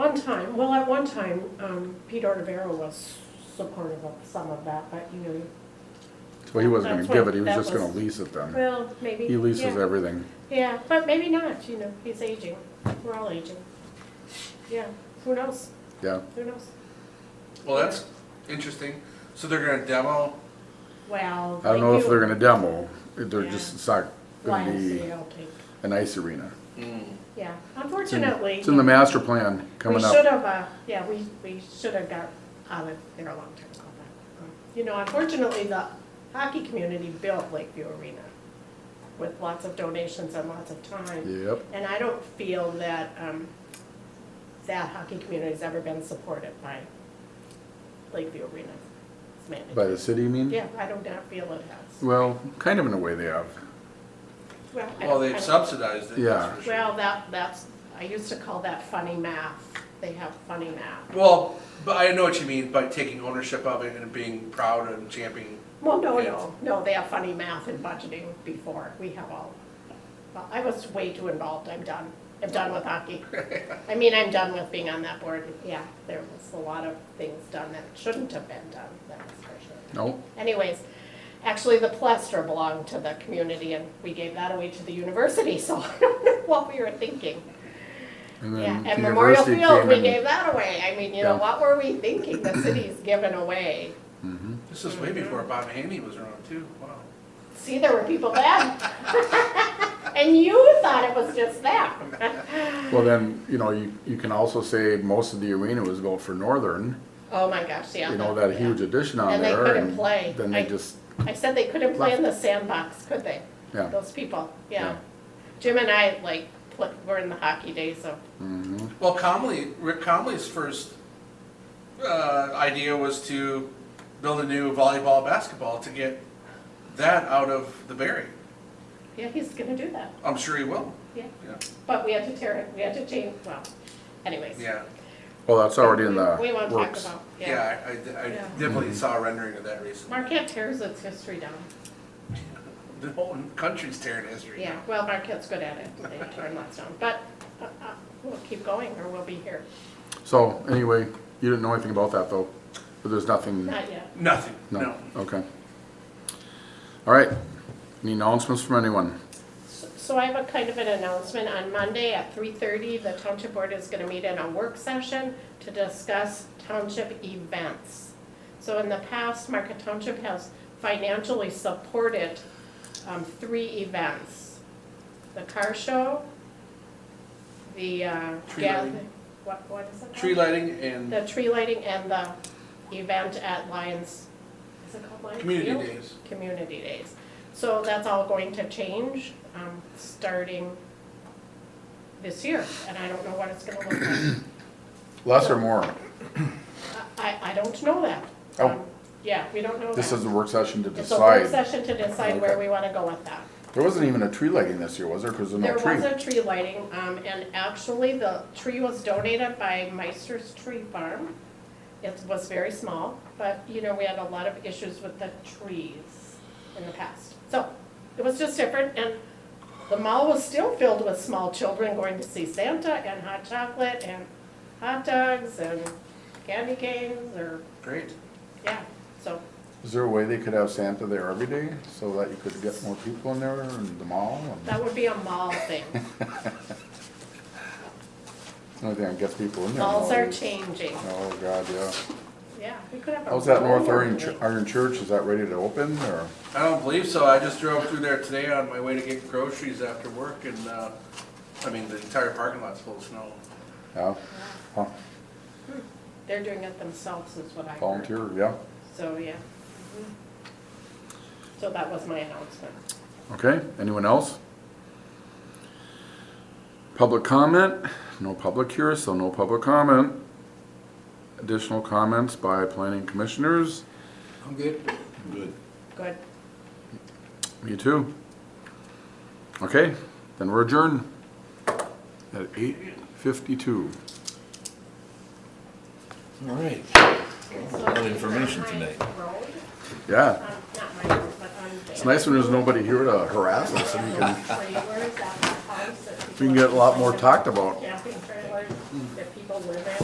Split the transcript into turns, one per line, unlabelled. time, well, at one time, um, Pete Artavera was supportive of some of that, but you know,
So he wasn't
That's
gonna give
what-
it, he was
that
just gonna
was-
lease it then.
well, maybe.
He leases
yeah.
everything.
Yeah, but maybe not, you know, he's aging, we're all aging. Yeah, who knows,
Yeah,
who knows?
Well, that's interesting. So they're gonna demo,
Well.
I don't know if they're gonna demo, they're
Yeah.
just, it's not gonna be
YMCA, okay,
an ice arena.
yeah,
It's in-
unfortunately.
It's in the master plan coming
We should
up.
have, uh, yeah, we, we should have got out of there a long time ago. but, uh, You know, unfortunately, the hockey community built Lakeview Arena with lots of donations and lots of time.
Yep,
And I don't feel that, um, that hockey community's ever been supported by Lakeview Arena's
by
management.
the city, you mean?
Yeah, I do not feel it has.
Well, kind of in a way they have.
Well, I-
well,
I-
they've subsidized it,
Yeah.
that's for sure.
Well, that, that's, I used to call that funny math. They have funny math.
Well, but I know what you mean by taking ownership of it and being proud and championing.
Well, no,
Yeah.
no, no, they have funny math and budgeting before, we have all, well, I was way too involved, I'm done, I'm done with hockey. I mean, I'm done with being on that board, yeah, there was a lot of things done that shouldn't have been done, that's for sure.
No,
Anyways, actually, the plaster belonged to the community, and we gave that away to the university, so I don't know what we were thinking.
and
Yeah,
then
at
the
Memorial
university
Field,
came
we gave
in.
that away, I mean, you know,
Yeah.
what were we thinking, the city's given away?
Mhm.
This is
Mm-hmm.
way before Bob Haney was around too, wow.
See, there were people then. and you thought it was just that.
Well, then, you know, you, you can also say most of the arena was built for Northern,
oh my gosh, yeah.
you know, that
yeah.
huge addition on
And they
there.
couldn't play.
Then they
I-
just,
I said they couldn't play in the sandbox, could they?
yeah.
Those people, yeah.
Yeah.
Jim and I, like, pl- were in the hockey days of,
Mhm.
Well, Comley, Rick Comley's first, uh, idea was to build a new volleyball, basketball to get that out of the Berry.
yeah, he's going to do that.
I'm sure he will,
Yeah.
yeah,
But we had to tear it, we had to change, well, anyways.
yeah.
Well, that's already in
We- we
the
won't talk
works.
about- yeah.
Yeah, I, I- I
Yeah.
definitely saw a rendering of that recently.
Marquette tears its history down.
The whole country's tearing history.
Yeah, well, Marquette's good at it. They turn lots down. But uh, uh, we'll keep going or we'll be here.
So anyway, you didn't know anything about that though, but there's nothing,
Not yet.
Nothing,
no,
no.
okay. All right, any announcements from anyone?
So I have a kind of an announcement. On Monday at 3:30, the Township Board is going to meet in a work session to discuss township events. So in the past, Market Township has financially supported um, three events. The car show, the uh,
Tree
gathering.
lighting.
What, what is it
Tree
called?
lighting and
The tree lighting and the event at Lions, is it called Lions
community
Field?
days.
community days. So that's all going to change, um, starting this year, and I don't know what it's gonna look like.
Less or more?
I, I don't know that.
Oh.
Um, Yeah, we don't know that.
This is the work session to
It's a work
decide.
session to decide where
Okay.
we wanna go with that.
There wasn't even a tree lighting this year, was there? Cause there's no
There was
tree.
a tree lighting, um, and actually, the tree was donated by Meister's Tree Farm. It was very small, but, you know, we had a lot of issues with the trees in the past. So, it was just different, and the mall was still filled with small children going to see Santa and hot chocolate and hot dogs and candy canes, or,
Great.
yeah, so,
Is there a way they could have Santa there every day so that you could get more people in there and the mall? and-
that would be a mall thing.
The only thing that gets people in there.
Malls are
nowadays.
changing,
Oh, God, yeah.
yeah, we could have a.
How's that
mall
North Iron,
meeting.
Iron Church? Is that ready to open or?
I don't believe so. I just drove through there today on my way to get groceries after work and, uh, I mean, the entire parking lot's full of snow.
Yeah, huh,
They're doing it themselves is what I heard.
volunteer, yeah.
So, yeah. Mm-hmm. So that was my announcement.
Okay, anyone else? Public comment? No public here, so no public comment. Additional comments by planning commissioners?
I'm good. Good.
Good.
Me too. Okay, then we're adjourned at eight fifty-two.
All right.
So
lot of information
it's on my
tonight.
road,
Yeah,
um, Not my road, but on there.
it's nice when there's nobody here to harass us and
Trailers at the house that
we can get a lot more
people-
talked about.
Yeah.